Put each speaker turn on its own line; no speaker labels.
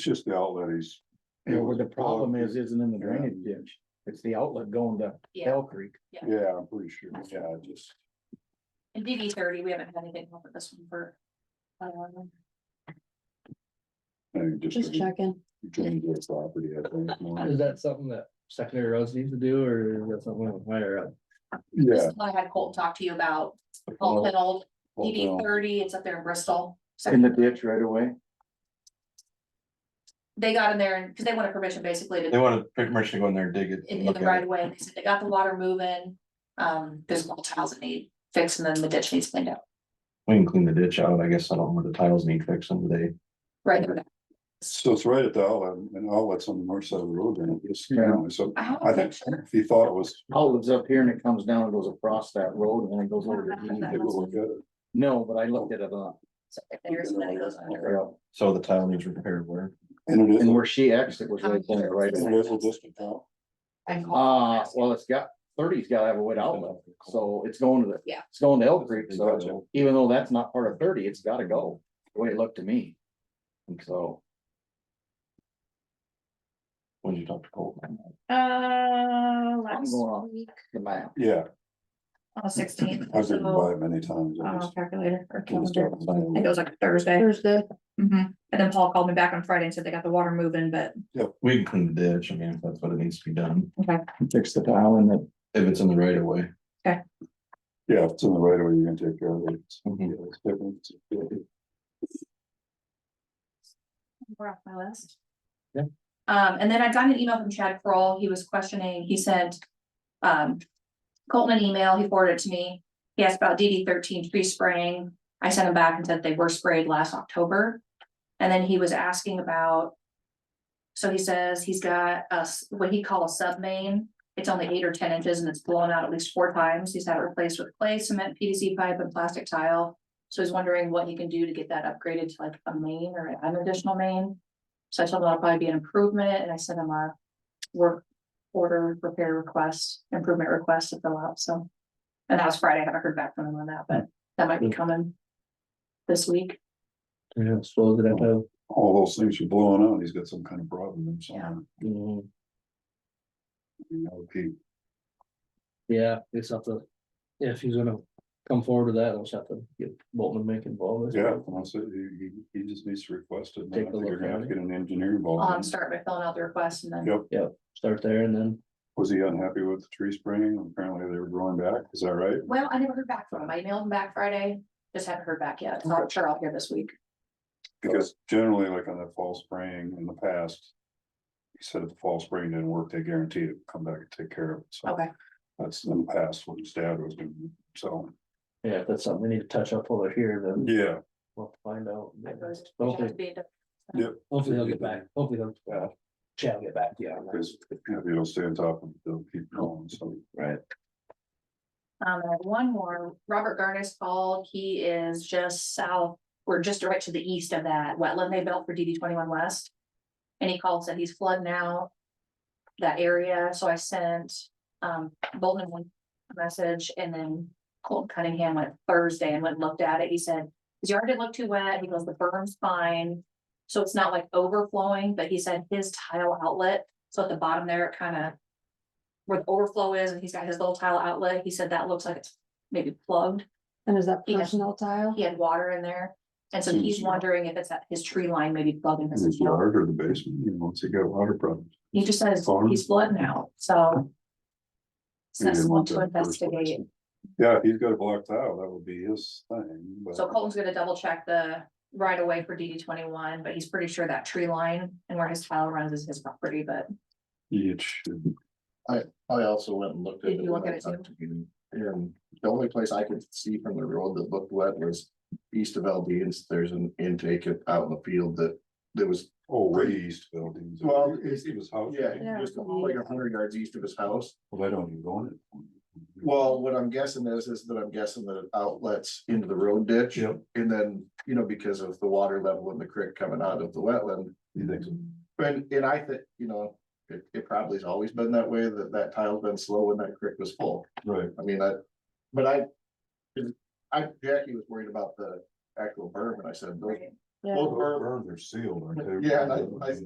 just the outlet he's.
Yeah, well, the problem is, isn't in the
Yeah.
drainage ditch, it's the outlet going to
Yeah,
Hell Creek.
Yeah, I'm pretty sure, yeah, I just,
in DD thirty, we haven't had anything over this one for. um,
I think just.
Just checking.
Change their property, I think. more.
Is that something that secondary roads need to do, or is that something higher up?
This
Yeah.
is what I had Colton talk to you about,
well,
Colton Old,
well,
DD
well,
thirty, it's up there in Bristol.
In the ditch right away.
They got in there and, because they wanted permission basically
They
to,
want to pretty much to go in there and dig it.
in, in
look
the
at it.
right of way, and they said they got the water moving. Um, there's a couple tiles that need fixed, and then the ditch needs cleaned out,
We can clean the ditch out. I guess I don't know where the tiles need fixing today.
right there.
So it's right at the outlet, and outlet's on the north side of the road, and it's, you know, so
I have
I
a
think
picture,
if you thought it was.
Outlet's up here and it comes down and goes across that road and then it goes over to.
you
DD.
could look at it.
No, but I looked at it on.
so if there's one that goes under.
So the tile needs repaired where?
And it is,
And where she exited was right there, right?
it is a distant out.
I called
Uh, well, it's got, thirty's gotta have a wood outlet, so it's going to the.
Yeah.
It's going to Elk Creek,
Gotcha.
so even though that's not part of thirty, it's gotta go, the way it looked to me. And so,
When you talk to Colton.
Uh,
I'm
last
going off
week,
the map,
Yeah,
on the sixteenth,
I've driven by
so,
it many times. I
uh,
just-
calculator or
it was
calendar.
driven
I
by
think it
it.
was like Thursday.
Thursday.
hmm
Mm-hmm.
And then Paul called me back on Friday and said they got the water moving, but
We can clean the ditch. I mean, if that's what it needs to be done,
fix the tile and the
if it's in the right of way.
Yeah, if it's in the right away, you're gonna take care of it. It's-
Mhm.
yeah, it's different. It's different.
we're off my list.
Yeah.
Um, and then I got an email from Chad Kroll, he was questioning, he sent, um, Colton an email, he forwarded it to me. He asked about DD thirteen tree spraying, I sent him back and said they were sprayed last October. And then he was asking about. So he says he's got a s what he calls sub main, it's only eight or ten inches and it's blown out at least four times, he's had it replaced with clay, cement, PVC pipe and plastic tile. So he's wondering what he can do to get that upgraded to like a main or an additional main. So I told him that'll probably be an improvement and I sent him a work order repair request, improvement request to fill out, so. And that was Friday, I haven't heard back from him on that, but that might be coming this week.
Yeah, I suppose that I have.
All those things you're blowing out, he's got some kind of problem.
Yeah.
mm,
Okay,
Yeah, it's have to, yeah, if he's gonna come forward with that, I'll just have to get Bolton to make involved.
yeah, and I said, he, he, he just needs to request it, and then I
Take a
think you're
look
gonna
at
have to
it.
get an engineer involved.
Um, start by filling out the request and then,
Yep.
Start there and then,
Was he unhappy with the tree spraying? Apparently they were growing back, is that right?
well, I never heard back from him. I emailed him back Friday, just haven't heard back yet. So I'm sure I'll hear this week.
Because generally, like on that fall spraying in the past. He said if the fall spraying didn't work, they guaranteed it, come back and take care of it, so
Okay,
that's in the past what his dad was doing, so,
yeah, if that's something we need to touch up over here, then
yeah.
we'll find out.
I suppose we have to
Hopefully,
be in
hopefully he'll get back, hopefully he'll, uh, Chad will get back to you on that.
Because if you don't stay on top of it, they'll keep going, so.
Right.
Um, I have one more, Robert Garnis called, he is just south, we're just right to the east of that wetland they built for DD twenty-one west. And he called, said he's flooding out that area, so I sent, um, Bolton one message and then Colton Cunningham went Thursday and went and looked at it, he said, his yard didn't look too wet, he goes, the berm's fine. So it's not like overflowing, but he said his tile outlet, so at the bottom there, it kind of where the overflow is, and he's got his little tile outlet, he said that looks like it's maybe plugged,
And is that
Yeah.
personal tile?
he had water in there. And so he's wondering if it's at his tree line, maybe plugging
In
his
his
account,
yard or the basement, you know, once he got water problems.
he just says
Farm.
he's flooding out, so.
he didn't
Says someone
want
to
that in the first place.
investigate,
Yeah, if he's got a black tile, that would be his thing, but.
so Colton's gonna double check the right of way for DD twenty-one, but he's pretty sure that tree line and where his tile runs is his property, but.
It should,
I also went and looked at.
Did you look
when
at
I
it
talked to you, And the only place I could see from the road that looked wet was east of Aldean's, there's an intake out in the field that there was.
oh, way east buildings.
Well,
East of his house.
Yeah.
Just like a hundred yards east of his house.
Well, they don't even go in it.
Well, what I'm guessing is, is that I'm guessing that it outlets into the road ditch.
Yep.
And then, you know, because of the water level in the creek coming out of the wetland,
You think so?
And, and I think, you know, it, it probably has always been that way, that that tile's been slow when that creek was full.
Right.
I mean, I, but I, I, Jackie was worried about the actual berm, and I said, those
Yeah.
Both burn-
Burns are sealed, aren't
Yeah, and I- I